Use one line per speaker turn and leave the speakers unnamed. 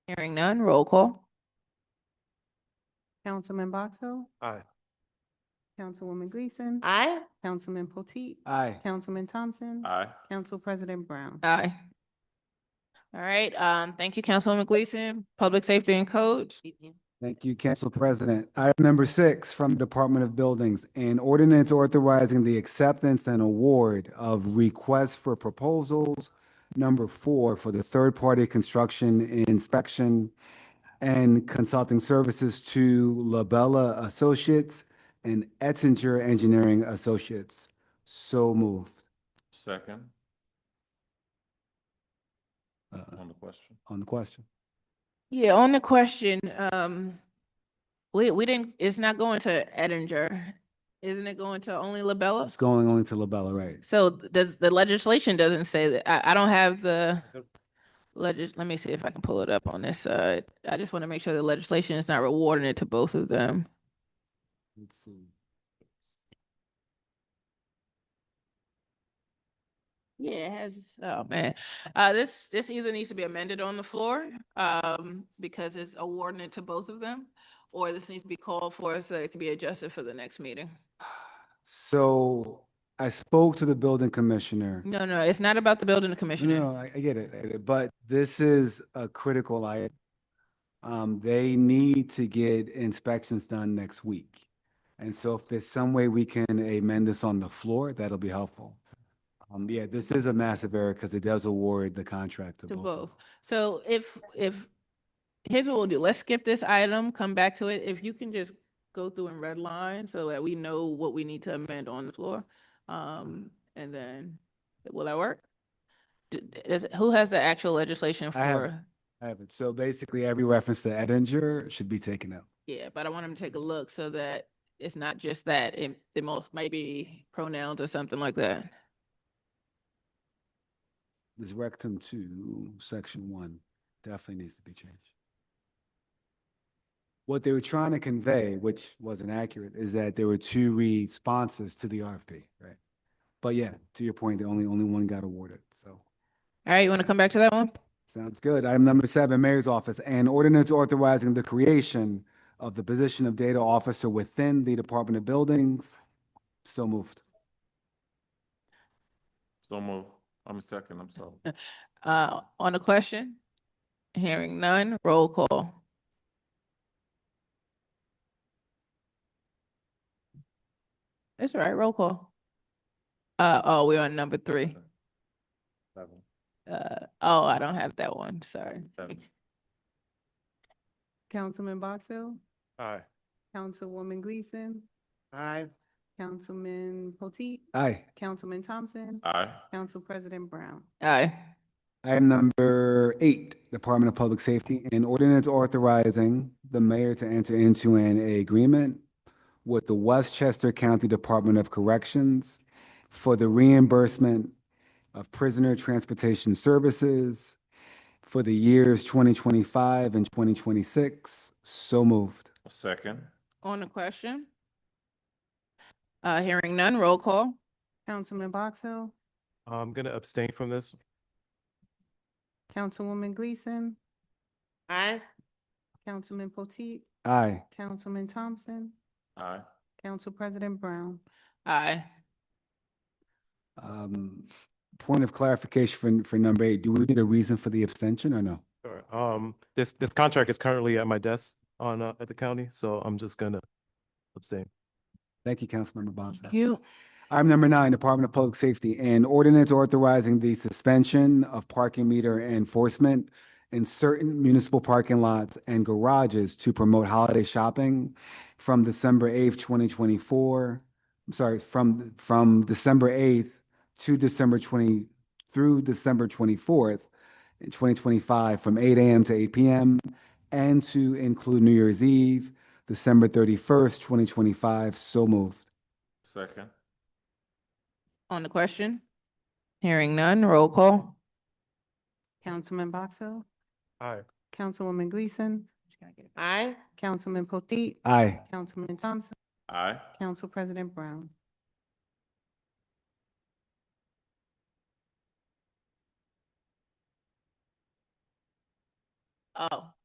Hearing none, roll call.
Councilman Boxill,
Aye.
Councilwoman Gleason.
Aye.
Councilman Potteet.
Aye.
Councilman Thompson.
Aye.
Council President Brown.
Aye. All right, um, thank you, Councilwoman Gleason, Public Safety and Code.
Thank you, Council President. Item number six from the Department of Buildings, an ordinance authorizing the acceptance and award of requests for proposals. Number four for the third-party construction inspection and consulting services to Labella Associates and Ettinger Engineering Associates. So moved.
Second
Uh,
on the question.
On the question.
Yeah, on the question, um, we, we didn't, it's not going to Edinger. Isn't it going to only
It's
Labella?
going on to Labella, right?
So the, the legislation doesn't say that. I, I don't have the legis, let me see if I can pull it up on this side. I just want to make sure the legislation is not rewarding it to both of them.
Let's see.
Yeah, it has, oh man, uh, this, this either needs to be amended on the floor, um, because it's awarding it to both of them. Or this needs to be called for so it can be adjusted for the next meeting.
So I spoke to the building commissioner.
No, no, it's not about the building
No,
commissioner.
No, I, I get it, I get it, but this is a critical item. Um, they need to get inspections done next week. And so if there's some way we can amend this on the floor, that'll be helpful. Um, yeah, this is a massive error because it does award the contract to
To
both. of
both.
them.
So if, if, here's what we'll do. Let's skip this item, come back to it. If you can just go through and red line so that we know what we need to amend on the floor. Um, and then, will that work? D- d- Is, who has the actual legislation
I have-
for?
I haven't. So basically every reference to Edinger should be taken out.
Yeah, but I want him to take a look so that it's not just that, it, the most, maybe pronouns or something like that.
This rectum two, section one, definitely needs to be changed. What they were trying to convey, which wasn't accurate, is that there were two responses to the RFP, right? But yeah, to your point, the only, only one got awarded, so.
All right, you want to come back to that one?
Sounds good. Item number seven, Mayor's Office, an ordinance authorizing the creation of the position of data officer within the Department of Buildings. So moved.
So move. I'm second, I'm sorry.
Uh, on the question? Hearing none, roll call. That's all right, roll call. Uh, oh, we're on number three.
Seven.
Uh, oh, I don't have that one, sorry.
Seven.
Councilman Boxill,
Aye.
Councilwoman Gleason,
Aye.
Councilman Potteet,
Aye.
Councilman Thompson,
Aye.
Council President Brown.
Aye.
Item number eight, Department of Public Safety, an ordinance authorizing the mayor to enter into an agreement with the Westchester County Department of Corrections for the reimbursement of prisoner transportation services for the years 2025 and 2026. So moved.
Second.
On the question? Uh, hearing none, roll call.
Councilman Boxill,
I'm gonna abstain from this.
Councilwoman Gleason,
Aye.
Councilman Potteet,
Aye.
Councilman Thompson,
Aye.
Council President Brown.
Aye.
Um, Point of clarification for, for number eight, do we need a reason for the abstention or no?
Sure. Um, this, this contract is currently at my desk on, uh, at the county, so I'm just gonna abstain.
Thank you, Councilmember Bonzo.
Thank you.
Item number nine, Department of Public Safety, an ordinance authorizing the suspension of parking meter enforcement in certain municipal parking lots and garages to promote holiday shopping from December eighth, twenty twenty-four, I'm sorry, from, from December eighth to December twenty, through December twenty-fourth, twenty twenty-five, from eight AM to eight PM, and to include New Year's Eve, December thirty-first, twenty twenty-five, so moved.
Second.
On the question? Hearing none, roll call.
Councilman Boxill,
Aye.
Councilwoman Gleason,
Aye.
Councilman Potteet,
Aye.
Councilman Thompson,
Aye.
Council President Brown.
Oh,